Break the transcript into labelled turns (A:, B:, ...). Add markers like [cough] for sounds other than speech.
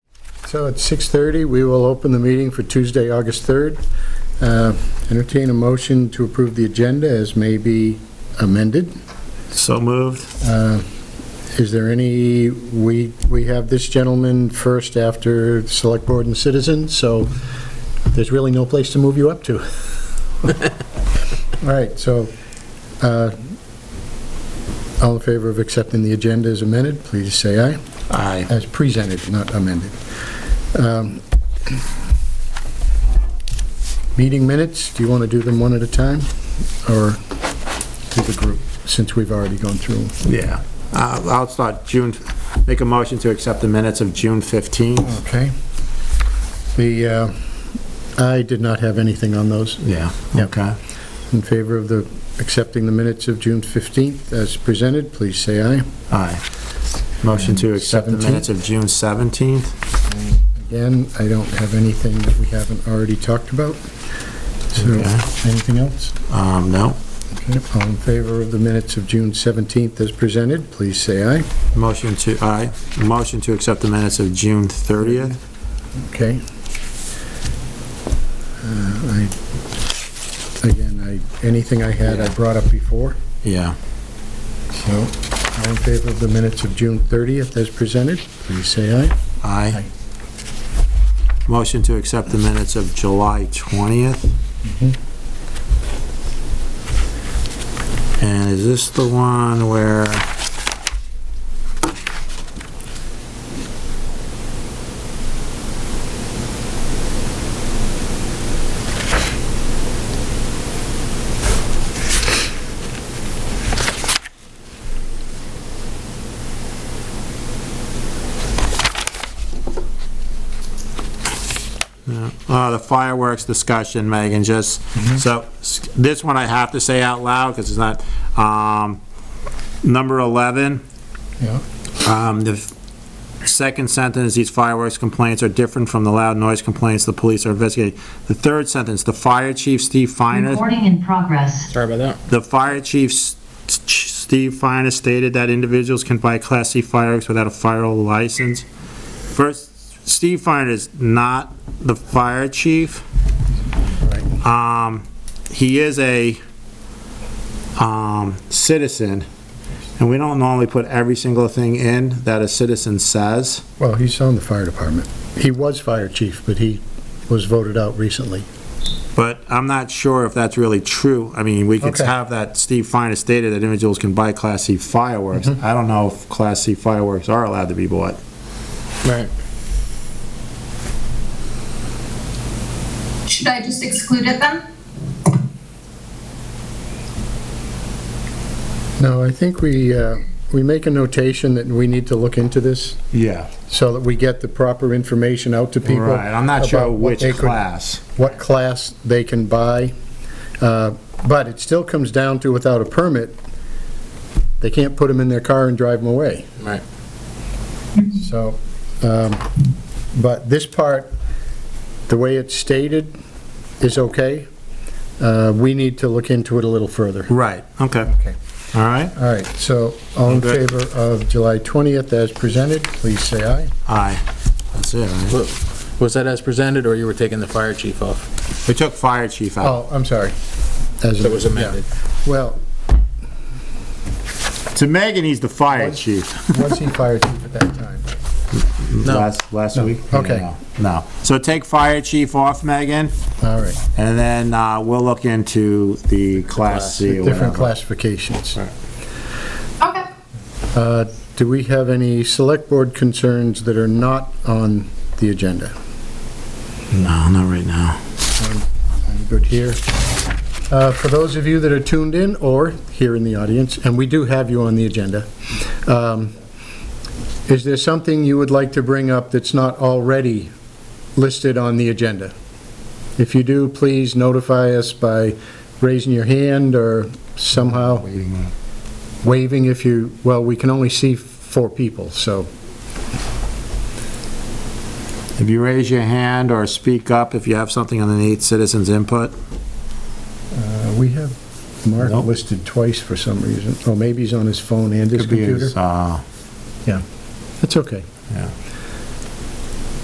A: So at 6:30, we will open the meeting for Tuesday, August 3rd. Uh, Entertain a motion to approve the agenda as may be amended.
B: So moved.
A: Uh, Is there any, we, we have this gentleman first after Select Board and Citizens, so there's really no place to move you up to. [laughs] All right, so, uh, all in favor of accepting the agenda as amended, please say aye.
B: Aye.
A: As presented, not amended. Um, Meeting minutes, do you want to do them one at a time, or do the group, since we've already gone through them?
B: Yeah. Uh, I'll start June, make a motion to accept the minutes of June 15th.
A: Okay. The, uh, I did not have anything on those
B: Yeah.
A: Yeah.
B: Okay.
A: in favor of the, accepting the minutes of June 15th as presented, please say aye.
B: Aye. Motion to accept the
A: 17th?
B: minutes of June 17th.
A: Again, I don't have anything that we haven't already talked about. So,
B: Okay.
A: anything else?
B: Um, no.
A: Okay, All in favor of the minutes of June 17th as presented, please say aye.
B: Motion to, aye. Motion to accept the minutes of June 30th.
A: Okay. Uh, I, again, I, anything I had, I brought up before.
B: Yeah.
A: So, all in favor of the minutes of June 30th as presented, please say aye.
B: Aye. Motion to accept the minutes of July 20th. Mm-hmm. And is this the one where? Uh, the fireworks discussion, Megan, just, so, s- this one I have to say out loud, because it's not, um, number 11,
A: Yeah.
B: um, the f- second sentence, these fireworks complaints are different from the loud noise complaints the police are investigating. The third sentence, the fire chief, Steve Finer,
C: Recording in progress.
D: Sorry about that.
B: The fire chief, S- S- Steve Finer, stated that individuals can buy Class C fireworks without a fire license. First, Steve Finer is not the fire chief. Um, he is a, um, citizen, and we don't normally put every single thing in that a citizen says.
A: Well, he's on the fire department. He was fire chief, but he was voted out recently.
B: But I'm not sure if that's really true. I mean, we could
A: Okay.
B: have that Steve Fine has stated that individuals can buy Class C fireworks.
A: Mm-hmm.
B: I don't know if Class C fireworks are allowed to be bought.
D: Right.
E: Should I just exclude it then?
A: No, I think we, uh, we make a notation that we need to look into this
B: Yeah.
A: so that we get the proper information out to people.
B: Right, I'm not sure
A: about what
B: which
A: they could-
B: class.
A: What class they can buy. Uh, But it still comes down to without a permit, they can't put them in their car and drive them away.
D: Right.
A: So, um, but this part, the way it's stated, is okay. Uh, We need to look into it a little further.
B: Right, okay.
A: Okay.
B: All right,
A: All right, so all in
B: Okay.
A: favor of July 20th as presented, please say aye.
B: aye. That's it, right?
D: Look, Was that as presented, or you were taking the fire chief off?
B: We took fire chief out.
A: Oh, I'm sorry. As
D: That was amended.
A: Well, Oh.
B: To Megan, he's the fire
A: Was-
B: chief.
A: was he fire chief at that time?
D: No.
B: Last, last
A: No,
B: week?
A: okay.
B: No, No. So take fire chief off, Megan,
A: All right,
B: and then uh, we'll look into the Class C or
A: different
B: whatever.
A: classifications.
E: Okay.
A: Uh, Do we have any select board concerns that are not on the agenda?
B: No, not right now.
A: I'm good here. Uh, For those of you that are tuned in or here in the audience, and we do have you on the agenda, um, is there something you would like to bring up that's not already listed on the agenda? If you do, please notify us by raising your hand or somehow waving if you, well, we can only see four people, so,
B: If you raise your hand or speak up if you have something underneath citizens' input.
A: uh, we have Mark
B: Nope.
A: listed twice for some reason. Oh, maybe he's on his phone and his
B: Could be
A: computer.
B: as, uh,
A: Yeah, that's okay.
B: Yeah.